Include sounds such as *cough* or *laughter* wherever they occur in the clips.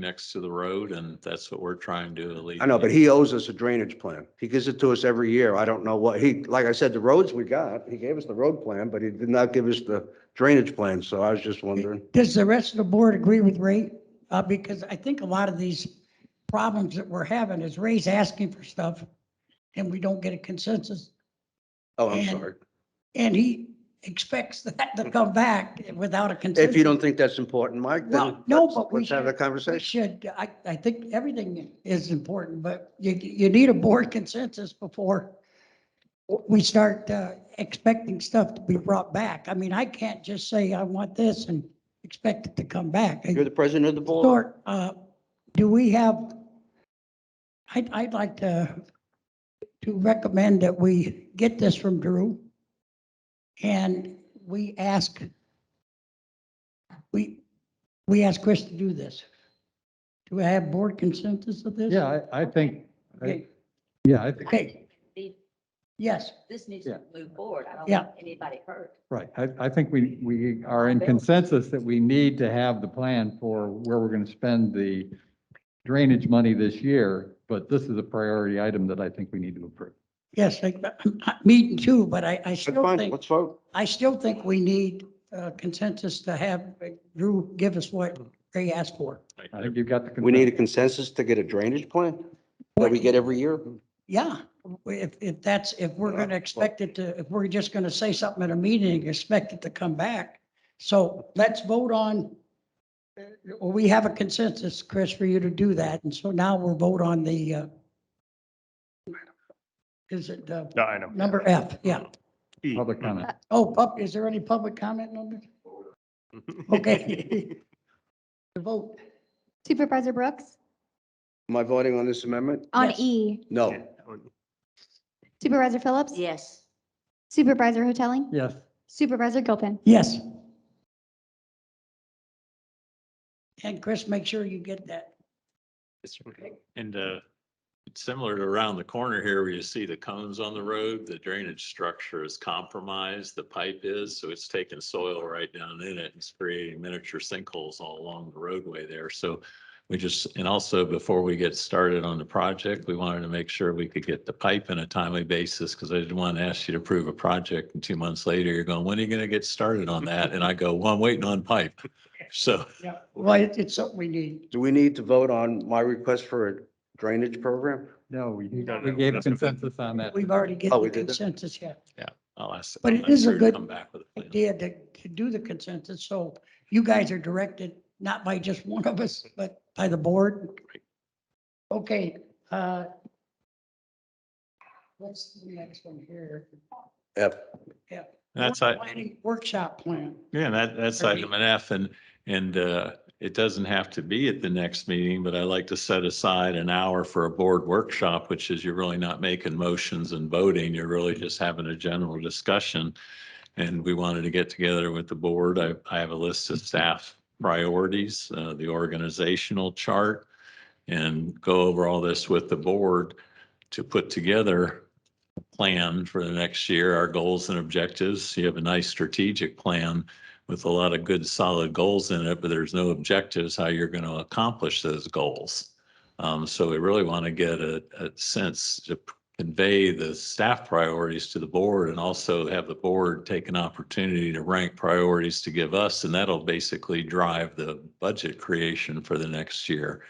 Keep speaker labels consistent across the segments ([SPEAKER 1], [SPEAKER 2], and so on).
[SPEAKER 1] next to the road and that's what we're trying to alleviate.
[SPEAKER 2] I know, but he owes us a drainage plan. He gives it to us every year. I don't know what he, like I said, the roads we got, he gave us the road plan, but he did not give us the drainage plan. So I was just wondering.
[SPEAKER 3] Does the rest of the board agree with Ray? Uh, because I think a lot of these problems that we're having is Ray's asking for stuff and we don't get a consensus.
[SPEAKER 2] Oh, I'm
[SPEAKER 3] And-
[SPEAKER 2] sorry.
[SPEAKER 3] And he expects that to come back without a consensus.
[SPEAKER 2] If you don't think that's important, Mike, then
[SPEAKER 3] Well, no,
[SPEAKER 2] let's-
[SPEAKER 3] but we
[SPEAKER 2] let's have a
[SPEAKER 3] should- We
[SPEAKER 2] conversation.
[SPEAKER 3] should, I, I think everything is important, but you, you need a board consensus before we start uh, expecting stuff to be brought back. I mean, I can't just say I want this and expect it to come back.
[SPEAKER 2] You're the president of the board.
[SPEAKER 3] Stuart, uh, do we have, I'd, I'd like to, to recommend that we get this from Drew. And we ask, we, we ask Chris to do this. Do we have board consensus of this?
[SPEAKER 4] Yeah, I, I think, I-
[SPEAKER 3] Okay,
[SPEAKER 4] yeah, I think,
[SPEAKER 3] Okay.
[SPEAKER 5] These-
[SPEAKER 3] yes,
[SPEAKER 5] This needs
[SPEAKER 4] Yeah.
[SPEAKER 5] to move forward. I don't
[SPEAKER 3] Yeah.
[SPEAKER 5] want anybody hurt.
[SPEAKER 4] right. I, I think we, we are in consensus that we need to have the plan for where we're going to spend the drainage money this year, but this is a priority item that I think we need to approve.
[SPEAKER 3] yes, I- I'm not meeting too, but I, I
[SPEAKER 2] That's
[SPEAKER 3] still
[SPEAKER 2] fine.
[SPEAKER 3] think,
[SPEAKER 2] Let's vote.
[SPEAKER 3] I still think we need uh, consensus to have Drew give us what they asked for.
[SPEAKER 4] I think you've got the.
[SPEAKER 2] We need a
[SPEAKER 4] consensus.
[SPEAKER 2] consensus to get a drainage plan that we get every year.
[SPEAKER 3] Yeah, if, if that's, if we're
[SPEAKER 2] Yeah,
[SPEAKER 3] going to
[SPEAKER 2] well-
[SPEAKER 3] expect it to, if we're just going to say something at a meeting, and expect it to come back. So let's vote on, uh, well, we have a consensus, Chris, for you to do that. And so now we'll vote on the, uh, is it uh,
[SPEAKER 6] The item.
[SPEAKER 3] number F? Yeah.
[SPEAKER 6] E.
[SPEAKER 4] Public comment.
[SPEAKER 3] Oh, pub- is there any public comment on this?
[SPEAKER 2] *laughs*
[SPEAKER 6] Mm-hmm. *laughs*
[SPEAKER 3] Okay. The vote.
[SPEAKER 7] Supervisor Brooks?
[SPEAKER 2] Am I voting on this amendment?
[SPEAKER 7] On
[SPEAKER 3] Yes.
[SPEAKER 7] E,
[SPEAKER 2] No.
[SPEAKER 7] Supervisor Phillips?
[SPEAKER 5] Yes.
[SPEAKER 7] Supervisor Hoteling?
[SPEAKER 4] Yes,
[SPEAKER 7] Supervisor Gilpin?
[SPEAKER 3] Yes. And Chris, make sure you get that.
[SPEAKER 1] And uh, it's similar to around the corner here where you see the cones on the road, the drainage structure is compromised, the pipe is, so it's taking soil right down in it. and It's creating miniature sinkholes all along the roadway there. So we just, and also before we get started on the project, we wanted to make sure we could get the pipe in a timely basis because I didn't want to ask you to approve a project and two months later you're going, when are you going to get started on that? And I go, well, I'm waiting on pipe. *laughs* So
[SPEAKER 3] Well, it- it's something we need.
[SPEAKER 2] Do we need to vote on my request for a drainage program?
[SPEAKER 4] no, we,
[SPEAKER 6] No, no,
[SPEAKER 4] we gave
[SPEAKER 6] that's okay.
[SPEAKER 4] consensus on that.
[SPEAKER 3] We've already get
[SPEAKER 2] Oh,
[SPEAKER 3] the
[SPEAKER 2] we did that?
[SPEAKER 3] consensus, yeah.
[SPEAKER 1] I'll ask.
[SPEAKER 3] But
[SPEAKER 1] I'll
[SPEAKER 3] it
[SPEAKER 1] ask
[SPEAKER 3] is a
[SPEAKER 1] her to
[SPEAKER 3] good
[SPEAKER 1] Come back with a plan.
[SPEAKER 3] idea to, to do the consensus, so you guys are directed not by just one of us, but by the board. Okay, uh, what's the next one here?
[SPEAKER 2] F. *laughs*
[SPEAKER 1] That's, I,
[SPEAKER 3] Planning Workshop plan.
[SPEAKER 1] Yeah, and that, that's
[SPEAKER 3] Or
[SPEAKER 1] item F and, and uh, it doesn't have to be at the next meeting, but I like to set aside an hour for a board workshop, which is you're really not making motions and voting. You're really just having a general discussion. And we wanted to get together with the board. I, I have a list of staff priorities, uh, the organizational chart and go over all this with the board to put together a plan for the next year, our goals and objectives. You have a nice strategic plan with a lot of good solid goals in it, but there's no objectives how you're going to accomplish those goals. Um, so we really want to get a, a sense to p- convey the staff priorities to the board and also have the board take an opportunity to rank priorities to give us, and that'll basically drive the budget creation for the next year.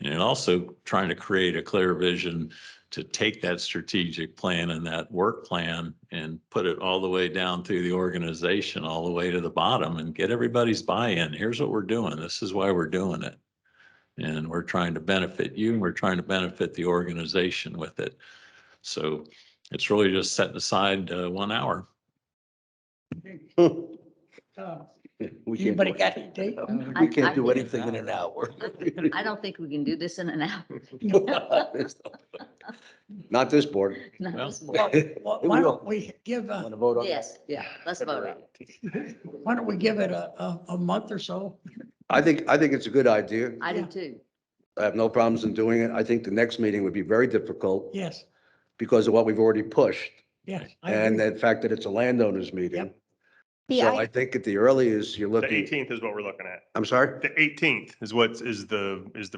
[SPEAKER 1] And also trying to create a clear vision to take that strategic plan and that work plan and put it all the way down through the organization, all the way to the bottom and get everybody's buy-in. Here's what we're doing. This is why we're doing it. And we're trying to benefit you and we're trying to benefit the organization with it. So it's really just setting aside uh, one hour.
[SPEAKER 3] Uh,
[SPEAKER 2] We Um, can't
[SPEAKER 3] Anybody
[SPEAKER 2] do
[SPEAKER 3] got
[SPEAKER 2] it.
[SPEAKER 3] a date?
[SPEAKER 5] I-
[SPEAKER 2] We can't
[SPEAKER 5] I
[SPEAKER 2] do
[SPEAKER 5] think-
[SPEAKER 2] anything in an hour. *laughs*
[SPEAKER 5] I don't think we can do this in an hour. *laughs*
[SPEAKER 2] Not this board.
[SPEAKER 5] Not
[SPEAKER 1] Well,
[SPEAKER 5] this
[SPEAKER 3] Well,
[SPEAKER 2] *laughs*
[SPEAKER 5] morning.
[SPEAKER 3] well, Why don't we give, a-
[SPEAKER 2] Want to vote on? that?
[SPEAKER 5] Oh. Yes, yeah, let's vote on it.
[SPEAKER 3] why don't we give it a, a, a month or so?
[SPEAKER 2] I think, I think it's a good idea.
[SPEAKER 5] I
[SPEAKER 3] Yeah.
[SPEAKER 5] do too.
[SPEAKER 2] I have no problems in doing it. I think the next meeting would be very difficult
[SPEAKER 3] Yes,
[SPEAKER 2] because of what we've already pushed
[SPEAKER 3] yes. I
[SPEAKER 2] and
[SPEAKER 3] agree.
[SPEAKER 2] the fact that it's a landowners meeting.
[SPEAKER 3] Yep.
[SPEAKER 7] The
[SPEAKER 2] So I
[SPEAKER 7] i-
[SPEAKER 2] think at the earliest, you're
[SPEAKER 6] The
[SPEAKER 2] looking,
[SPEAKER 6] eighteenth is what we're looking at.
[SPEAKER 2] I'm sorry?
[SPEAKER 6] The eighteenth is what is the, is the